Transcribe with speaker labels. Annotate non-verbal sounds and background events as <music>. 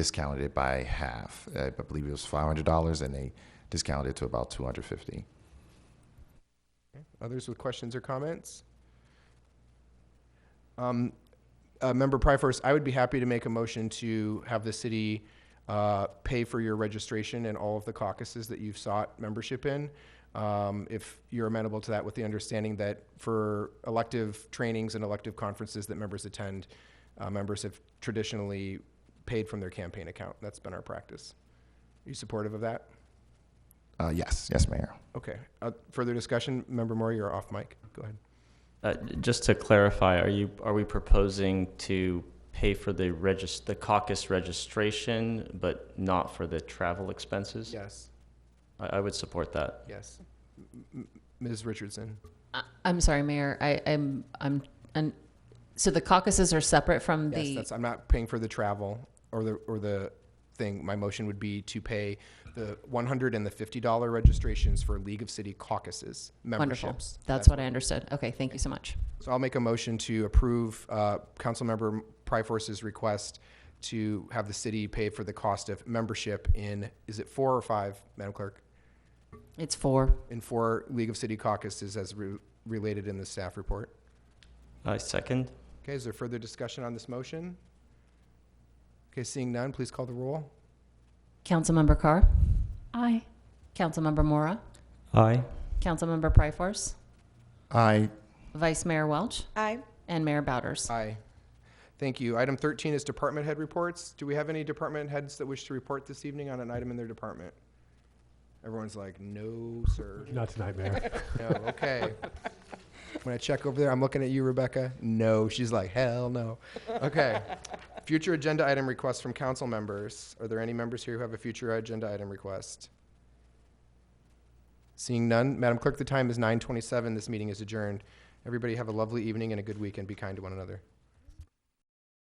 Speaker 1: discounted it by half. I believe it was five hundred dollars, and they discounted it to about two hundred fifty.
Speaker 2: Others with questions or comments? Um, uh, Member Pryforce, I would be happy to make a motion to have the city uh, pay for your registration in all of the caucuses that you've sought membership in. Um, If you're amenable to that, with the understanding that for elective trainings and elective conferences that members attend, uh, members have traditionally paid from their campaign account. That's been our practice. Are you supportive of that?
Speaker 1: Uh, yes, yes, Mayor.
Speaker 2: Okay. Uh, Further discussion? Member Moore, you're off mic. Go ahead.
Speaker 3: Uh, Just to clarify, are you, are we proposing to pay for the regis, the caucus registration, but not for the travel expenses?
Speaker 2: Yes.
Speaker 3: I, I would support that.
Speaker 2: Yes. M- m- Ms. Richardson?
Speaker 4: I- I'm sorry, Mayor. I, I'm, I'm, and, so the caucuses are separate from
Speaker 2: Yes,
Speaker 4: the,
Speaker 2: that's, I'm not paying for the travel or the, or the thing. My motion would be to pay the one hundred and the fifty dollar registrations for League of City caucuses
Speaker 4: wonderful.
Speaker 2: memberships.
Speaker 4: That's what I understood. Okay, thank you so much.
Speaker 2: So I'll make a motion to approve, uh, Councilmember Pryforce's request to have the city pay for the cost of membership in, is it four or five, Madam Clerk?
Speaker 4: It's four.
Speaker 2: In four League of City caucuses as re- related in the staff report.
Speaker 3: I second.
Speaker 2: Okay, is there further discussion on this motion? Okay, seeing none, please call the roll.
Speaker 4: Councilmember Carr?
Speaker 5: Aye.
Speaker 4: Councilmember Mora?
Speaker 3: Aye.
Speaker 4: Councilmember Pryforce?
Speaker 1: I
Speaker 4: Vice Mayor Welch?
Speaker 5: Aye.
Speaker 4: And Mayor Bowders?
Speaker 2: Aye. Thank you. Item 13 is department head reports. Do we have any department heads that wish to report this evening on an item in their department? Everyone's like, no, sir.
Speaker 6: Not tonight, Mayor.
Speaker 2: <laughs> No, okay. When I check over there, I'm looking at you, Rebecca. No, she's like, hell no. Okay. Future agenda item requests from council members. Are there any members here who have a future agenda item request? Seeing none, Madam Clerk, the time is 9:27. This meeting is adjourned. Everybody have a lovely evening and a good weekend. Be kind to one another.